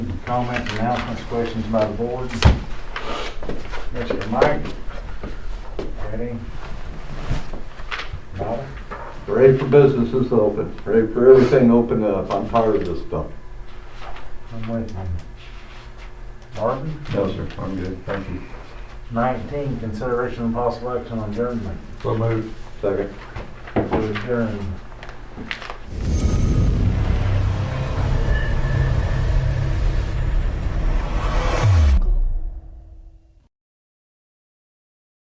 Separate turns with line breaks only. comments, announcements, questions by the board? Mr. Mike? Ready? Bobby?
Ready for businesses to open, ready for everything to open up. I'm tired of this stuff.
I'm with you. Marvin?
No, sir, I'm good, thank you.
Nineteen, consideration and possible action on adjournment.
So moved. Second.
to adjourn.